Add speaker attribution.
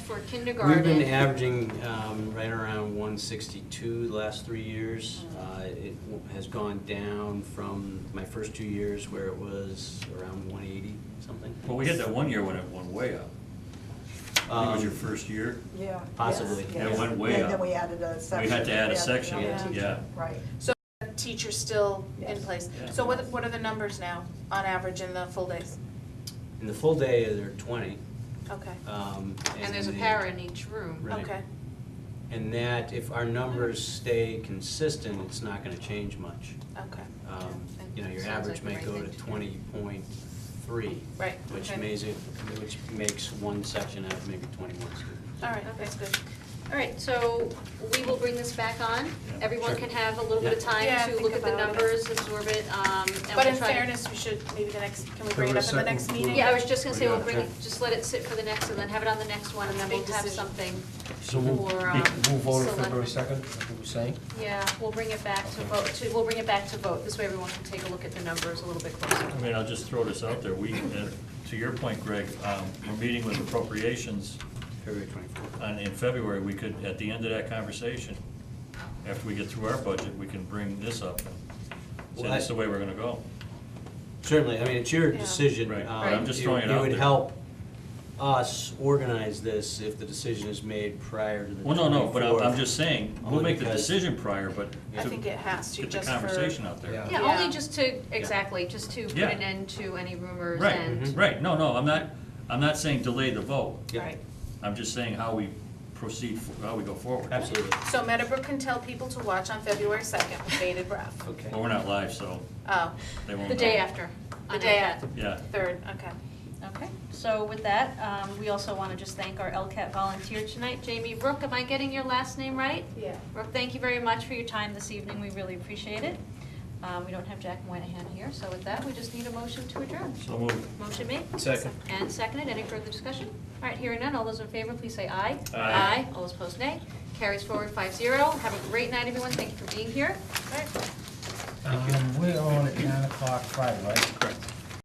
Speaker 1: for
Speaker 2: We've been
Speaker 1: kindergarten.
Speaker 2: averaging um, right around 162 the last three years. Uh, It w- has gone down from my first two years where it was around 180 something.
Speaker 3: Well, we had that one year when it went way up. I think it was your
Speaker 2: Um,
Speaker 3: first year.
Speaker 4: Yeah.
Speaker 2: Possibly.
Speaker 4: yes,
Speaker 2: Yeah,
Speaker 3: it
Speaker 4: yes.
Speaker 3: went way
Speaker 4: And then
Speaker 3: up.
Speaker 4: we added a section.
Speaker 3: had to add a
Speaker 4: Yeah,
Speaker 3: section,
Speaker 4: another
Speaker 1: yeah.
Speaker 4: teacher,
Speaker 3: Yeah.
Speaker 4: Right.
Speaker 1: Teachers still in
Speaker 4: Yes.
Speaker 1: place.
Speaker 3: Yeah.
Speaker 1: So what, what are the numbers now, on average in the full days?
Speaker 2: In the full day, there are 20.
Speaker 1: Okay,
Speaker 3: Uh,
Speaker 2: um,
Speaker 5: And there's a
Speaker 2: the-
Speaker 5: para in each room.
Speaker 2: Right.
Speaker 1: okay,
Speaker 2: And that, if our numbers stay consistent, it's not going to change much.
Speaker 1: okay,
Speaker 2: Um, You know, your
Speaker 5: Sounds like
Speaker 2: average
Speaker 5: the
Speaker 2: may
Speaker 5: right
Speaker 2: go
Speaker 5: thing
Speaker 2: to
Speaker 5: to do.
Speaker 2: 20.3,
Speaker 1: right,
Speaker 2: which
Speaker 1: okay.
Speaker 2: makes it, which makes one section out of maybe 21 students.
Speaker 5: Uh,
Speaker 1: All right, that's good.
Speaker 5: All right, so we will bring this back on. Everyone
Speaker 2: Sure.
Speaker 5: can have a little bit of
Speaker 2: Yeah.
Speaker 5: time
Speaker 1: Yeah,
Speaker 5: to
Speaker 1: think
Speaker 5: look at the
Speaker 1: about it.
Speaker 5: numbers, absorb it, um, and we'll try.
Speaker 1: But in
Speaker 5: to-
Speaker 1: fairness, we should, maybe the next, can we
Speaker 6: There
Speaker 1: bring it up
Speaker 6: were
Speaker 1: at the
Speaker 6: several
Speaker 1: next
Speaker 6: groups.
Speaker 1: meeting?
Speaker 5: Yeah, I was just gonna say,
Speaker 6: Yeah,
Speaker 5: we'll bring, it.
Speaker 6: okay.
Speaker 5: just let it sit for the next, and then have it on the next one, and then
Speaker 1: Big
Speaker 5: we'll have
Speaker 1: decision.
Speaker 5: something for,
Speaker 6: So we'll,
Speaker 5: um,
Speaker 6: we'll vote on
Speaker 5: selectmen.
Speaker 6: February second, that's what we're saying.
Speaker 5: Yeah, we'll bring it back to vote, to, we'll bring it back to vote, this way everyone can take a look at the numbers a little bit closer.
Speaker 3: I mean, I'll just throw this out there. We, uh, to your point, Greg, um, we're meeting with appropriations
Speaker 2: February 24th.
Speaker 3: on, in February. We could, at the end of that conversation, after we get through our budget, we can bring this up. and Say
Speaker 2: Well, I-
Speaker 3: this is the way we're gonna go.
Speaker 2: Certainly, I mean, it's your
Speaker 1: Yeah.
Speaker 2: decision.
Speaker 3: Right,
Speaker 2: Um,
Speaker 3: but I'm just throwing
Speaker 2: It
Speaker 3: it out
Speaker 2: would
Speaker 3: there.
Speaker 2: help us organize this if the decision is made prior to the 24th.
Speaker 3: Well, no, no, but I'm, I'm just saying, we'll
Speaker 2: Only
Speaker 3: make the
Speaker 2: because-
Speaker 3: decision prior, but
Speaker 1: I
Speaker 3: to
Speaker 1: think it has to,
Speaker 3: get the
Speaker 1: just for.
Speaker 3: conversation out there.
Speaker 6: Yeah.
Speaker 5: Yeah,
Speaker 1: Yeah.
Speaker 5: only just to, exactly, just to put
Speaker 3: Yeah.
Speaker 5: an end to any rumors and.
Speaker 3: Right, Mm-hmm. right, no, no, I'm not, I'm not saying delay the vote.
Speaker 2: Yeah.
Speaker 1: Right.
Speaker 3: I'm just saying how we proceed, fo- how we go forward.
Speaker 2: Absolutely.
Speaker 1: So Meadowbrook can tell people to watch on February second with bated breath.
Speaker 2: Okay.
Speaker 3: But we're not live, so
Speaker 1: Oh,
Speaker 3: they won't know.
Speaker 5: The day after.
Speaker 1: the
Speaker 5: on
Speaker 1: day
Speaker 5: iPad.
Speaker 1: after,
Speaker 3: Yeah.
Speaker 1: third, okay.
Speaker 5: Okay, so with that, um, we also want to just thank our LCAT volunteer tonight, Jamie Rook. Am I getting your last name right?
Speaker 1: Yeah.
Speaker 5: Rook, thank you very much for your time this evening. We really appreciate it. Um, We don't have Jack Moynihan here, so with that, we just need a motion to adjourn.
Speaker 3: So moved.
Speaker 5: Motion made
Speaker 6: Second.
Speaker 5: and seconded. Any further discussion? All right, hearing none. All those in favor, please say aye.
Speaker 3: Aye.
Speaker 5: All those opposed, nay. Carries forward five zero. Have a great night, everyone. Thank you for being here.
Speaker 6: Um, we're on at nine o'clock Friday, right? Correct.